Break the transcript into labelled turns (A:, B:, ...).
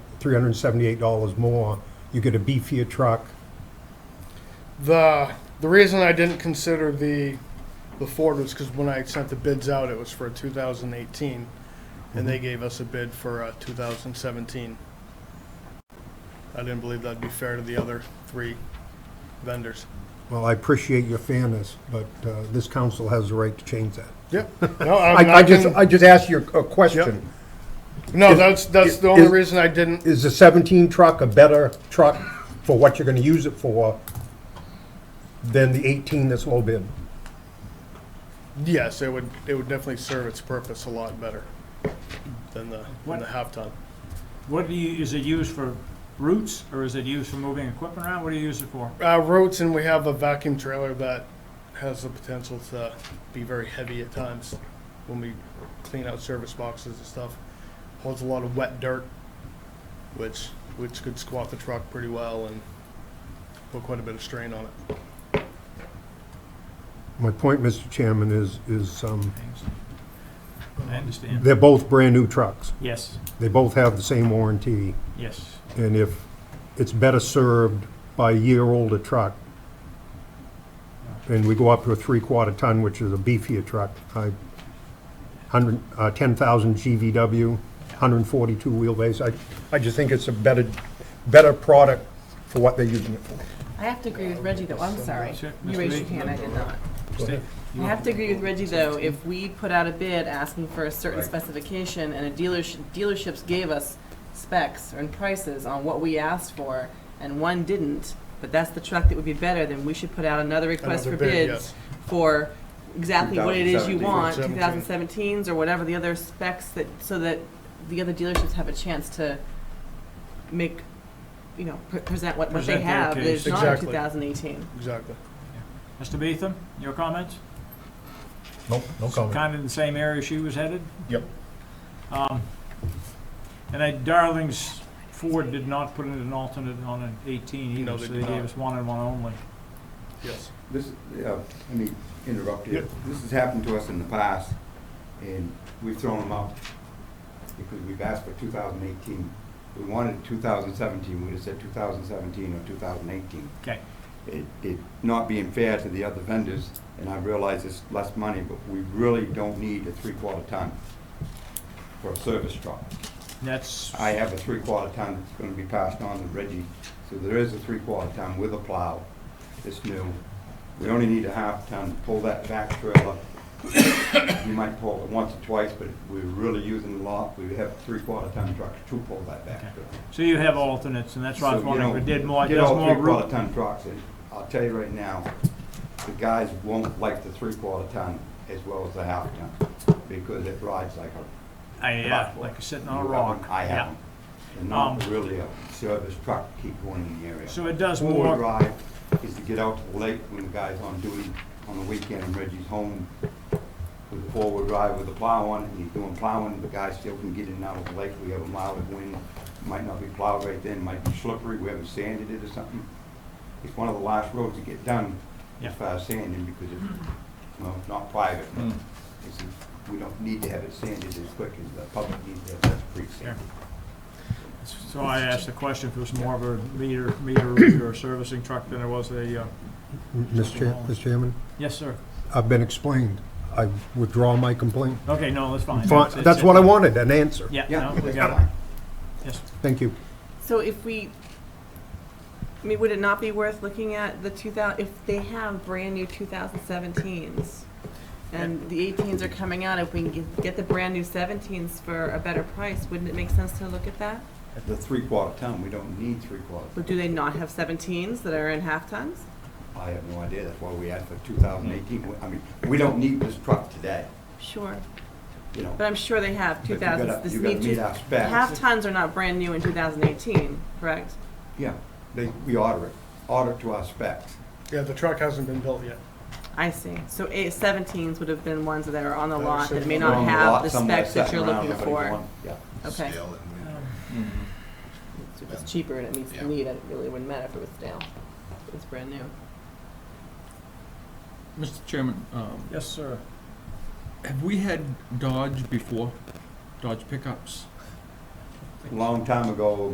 A: $378 more. You get a beefier truck.
B: The the reason I didn't consider the the Ford was because when I sent the bids out, it was for 2018, and
A: Mhm.
B: they gave us a bid for uh, 2017. I didn't believe that'd be fair to the other three vendors.
A: Well, I appreciate your fairness, but uh, this council has the right to change that.
B: Yep. No, I'm
A: I I
B: not
A: just,
B: gonna-
A: I just asked you a question.
B: no, that's that's the only reason I didn't.
A: Is the 17 truck a better truck for what you're going to use it for than the 18 that's low bid?
B: Yes, it would it would definitely serve its purpose a lot better than the than
C: What-
B: the half ton.
C: What do you, is it used for roots or is it used for moving equipment around? What do you use it for?
B: Uh, roads, and we have a vacuum trailer that has the potential to be very heavy at times when we clean out service boxes and stuff. Holds a lot of wet dirt, which which could squat the truck pretty well and put quite a bit of strain on it.
A: My point, Mr. Chairman, is, is um,
C: I understand.
A: they're both brand-new trucks.
C: Yes,
A: They both have the same warranty.
C: yes.
A: And if it's better served by a year older truck, and we go up to a three-quarter ton, which is a beefier truck, I, hundred, uh, ten thousand GVW, hundred and forty-two wheelbase, I, I just think it's a better, better product for what they're using it for.
D: I have to agree with Reggie, though, I'm sorry.
C: Sure, Mr.
D: You raised your
C: Lee.
D: hand, I did not.
C: Steve,
D: I
C: you
D: have
C: want-
D: to agree with Reggie, though, if we put out a bid asking for a certain specification and a dealership, dealerships gave us specs and prices on what we asked for, and one didn't, but that's the truck that would be better, then we should put out another request
B: Another
D: for
B: bid,
D: bids
B: yes.
D: for exactly what it is you want,
B: 2017.
D: 2017s or whatever the other specs that, so that the other dealerships have a chance to make, you know, pre- present what, what they
C: Present their
D: have that is
C: case.
D: not
B: Exactly.
D: 2018.
B: Exactly.
C: Mr. Beetham, your comments?
A: Nope, no
C: Kind of in the same area she was headed?
A: Yep.
C: Um, And I, Darlings Ford did not put in an alternate on an eighteen
B: No, they
C: either, so they
B: did not.
C: gave us one and one only.
B: Yes.
E: This, yeah, let me interrupt
B: Yep.
E: you. This has happened to us in the past, and we've thrown them out because we've asked for 2018. We wanted 2017, we'd have said 2017 or 2018.
C: Okay,
E: It, it not being fair to the other vendors, and I realize it's less money, but we really don't need a three-quarter ton for a service truck.
C: that's,
E: I have a three-quarter ton that's gonna be passed on to Reggie, so there is a three-quarter ton with a plow, it's new. We only need a half ton, pull that back trailer. You might pull it once or twice, but if we're really using a lot, we have three-quarter ton trucks to pull that back trailer.
C: so you have alternates, and that's why I was
E: So, you
C: wondering,
E: know,
C: if we did more,
E: get
C: does
E: all
C: more
E: three-quarter
C: root?
E: ton trucks, and I'll tell you right now, the guys won't like the three-quarter ton as well as the half ton, because it rides like a
C: I, yeah, like you're sitting on a
E: you have
C: rock.
E: them, I
C: Yeah.
E: have them. And not
C: Um,
E: really a service truck to keep going in the area.
C: So it does
E: Four-wheel
C: more,
E: drive is to get out to the lake when the guy's on duty on the weekend and Reggie's home with a four-wheel drive with a plow on it, and he's doing plowing, the guy still can get in and out of the lake. We have a mild wind, might not be plowed right then, might be slippery, we haven't sanded it or something. It's one of the last roads to get done
C: Yeah.
E: as far as sanding because it's, well, it's not private. but it's- We don't need to have it sanded as quick as the public needs to have that pre-sanded.
C: so I asked the question if it was more of a meter, meter root or servicing truck than it was a, uh,
A: Mr. Chair- Mr. Chairman,
C: yes, sir.
A: I've been explained. I withdraw my complaint.
C: Okay, no, that's fine.
A: Fine,
C: It's-
A: That's
C: it's-
A: what I wanted, an answer.
C: Yeah,
E: Yeah,
C: no, we
E: that's
C: got it,
E: fine.
C: yes.
A: Thank you.
D: So if we, I mean, would it not be worth looking at the 2000, if they have brand-new 2017s, and the 18s are coming out, if we can get- get the brand-new 17s for a better price, wouldn't it make sense to look at that?
E: At the three-quarter ton, we don't need three-quarter.
D: But do they not have 17s that are in half-tons?
E: I have no idea, that's why we asked for 2018. We- I mean, we don't need this truck today,
D: Sure.
E: you know.
D: But I'm sure they have
E: But you
D: 2000s.
E: gotta-
D: This
E: you gotta
D: need to-
E: meet our specs.
D: Half-tons are not brand-new in 2018, correct?
E: Yeah, they, we order it, order it to our specs.
B: Yeah, the truck hasn't been built yet.
D: I see. So eight, 17s would have been ones that are on the
B: That are
D: lot that may
B: sitting
E: We're
D: not
E: on the
D: have
E: lot
D: the
E: somewhere
D: specs that
E: sitting
D: you're
E: around,
D: looking
E: nobody's
D: for.
E: going, Yeah.
D: Okay.
F: scale and we-
D: So if it's cheaper and it meets the
F: Yeah.
D: need, it really wouldn't matter if it was stale. If It's brand new.
G: Mr. Chairman, um,
C: Yes, sir.
G: have we had Dodge before? Dodge pickups?
E: Long time ago,